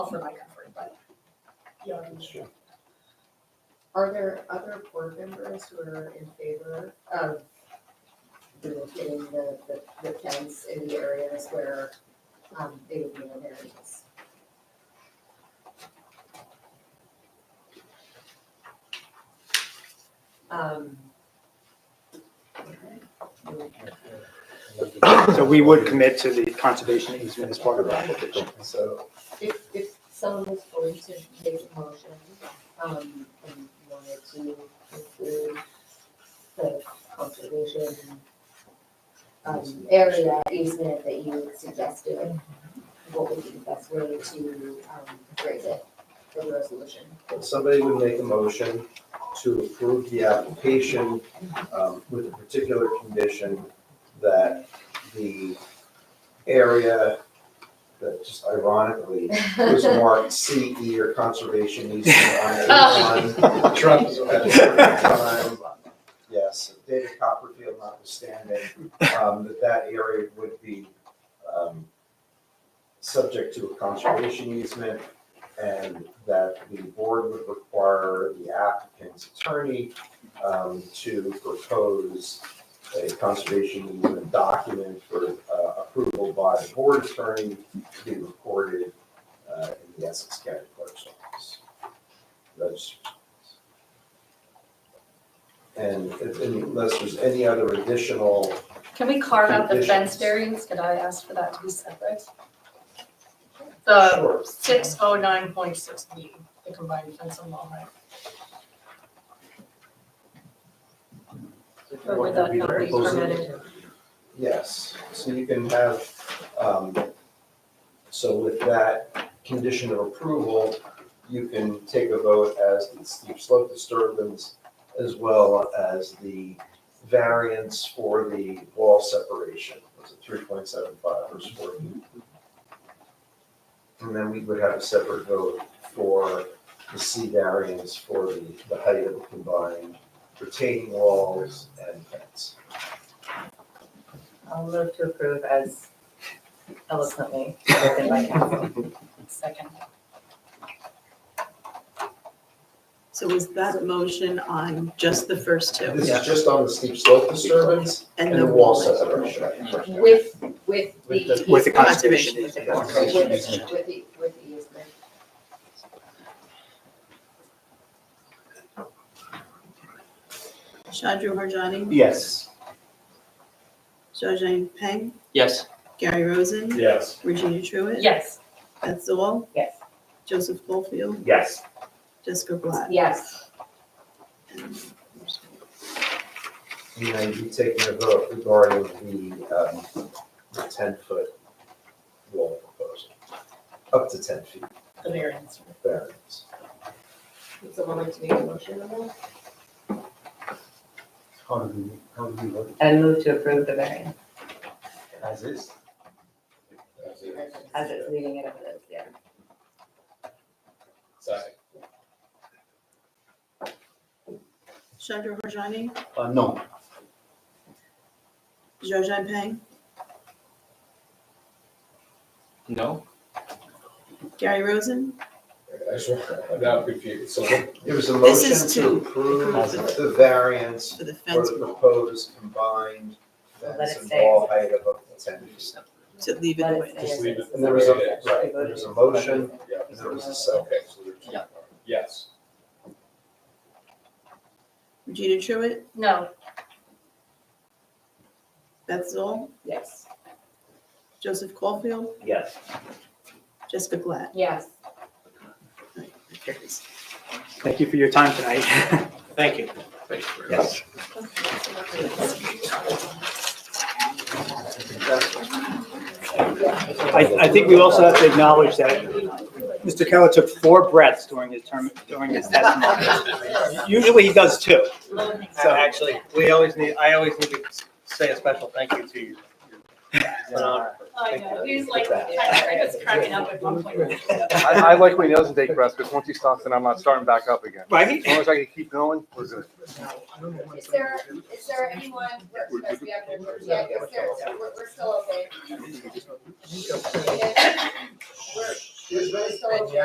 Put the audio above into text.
for my comfort, but. Yeah, That's true. Are there other board members who are in favor of relocating the, the, the fence in the areas where, um, they would be in areas? Um. okay. So we would commit to the conservation easement as part of our application. So, If, if someone was going to make a motion, um, and wanted to include the conservation um, area easement that you suggested, what would be the best way to, um, phrase it for the resolution? if somebody would make a motion to approve the application um, with a particular condition that the area that just ironically was marked CE or conservation easement on A one. Trump is at a certain time. Yes, David Copperfield notwithstanding, um, that that area would be, um, subject to a conservation easement and that the board would require the applicant's attorney, um, to propose a conservation easement document for, uh, approval by the board attorney to be recorded uh, in the Essex County Clerk's Office. That's. And if, unless there's any other additional, Can we carve out the Conditions. fenced areas? Could I ask for that to be separate? The sure, six oh nine point six B, the combined fence and lawn, right? Or would that not be permitted? yes, so you can have, um, so with that condition of approval, you can take a vote as the steep slope disturbance as well as the variance for the wall separation, was it three point seven five or four feet? And then we would have a separate vote for the C variance for the, the height of the combined retaining walls and fence. I'll move to approve as eloquently spoken by council. Second. So was that motion on just the first two This is just on the steep slope disturbance and and the the wall wall? separation. With, with With the. With the conservation Conservation. easement. Conservation With, with the, with the easement. Shadru Harjani, Yes. Zhajang Peng, Yes. Gary Rosen, Yes. Regina Truitt, Yes. Beth Zoll, Yes. Joseph Goldfield, Yes. Jessica Glad. Yes. And then you taking a vote regarding the, um, the ten foot wall proposal, up to ten feet The variance. variance. Would someone like to make a motion on that? How do we, how do we look And move to approve the variance as is? as it's leaving it up to this, yeah. Sorry. Shadru Harjani, Uh, no. Zhajang Peng, No? Gary Rosen, I just, I'm now confused. So There was a This motion is to to approve approve the variance for the for fence the proposed combined Let fence it and stay. wall height of up to ten feet. to leave it Let the it way. stay as Just leave is. it. And there was a, Yeah. right, there was a motion, Yeah. and there was a second. Okay. so there's- Yeah. Yes. Regina Truitt, No, Beth Zoll, Yes. Joseph Caulfield, Yes. Jessica Glad. Yes. Right, that carries. Thank you for your time tonight. Thank you. Yes. I, I think we also have to acknowledge that Mr. Keller took four breaths during his term, during his testimony. Usually he does two. So actually, we always need, I always need to say a special thank you to you. It's an honor. I know, he was Oh, like, I was cracking up at one point. I, I like when he doesn't take breaths, because once he stops, then I'm not starting back up again. Right? As long as I can keep going, we're good. Is there, is there anyone, we're, because we have, to- yeah, is there, we're, we're still okay. We're, She was very And thorough.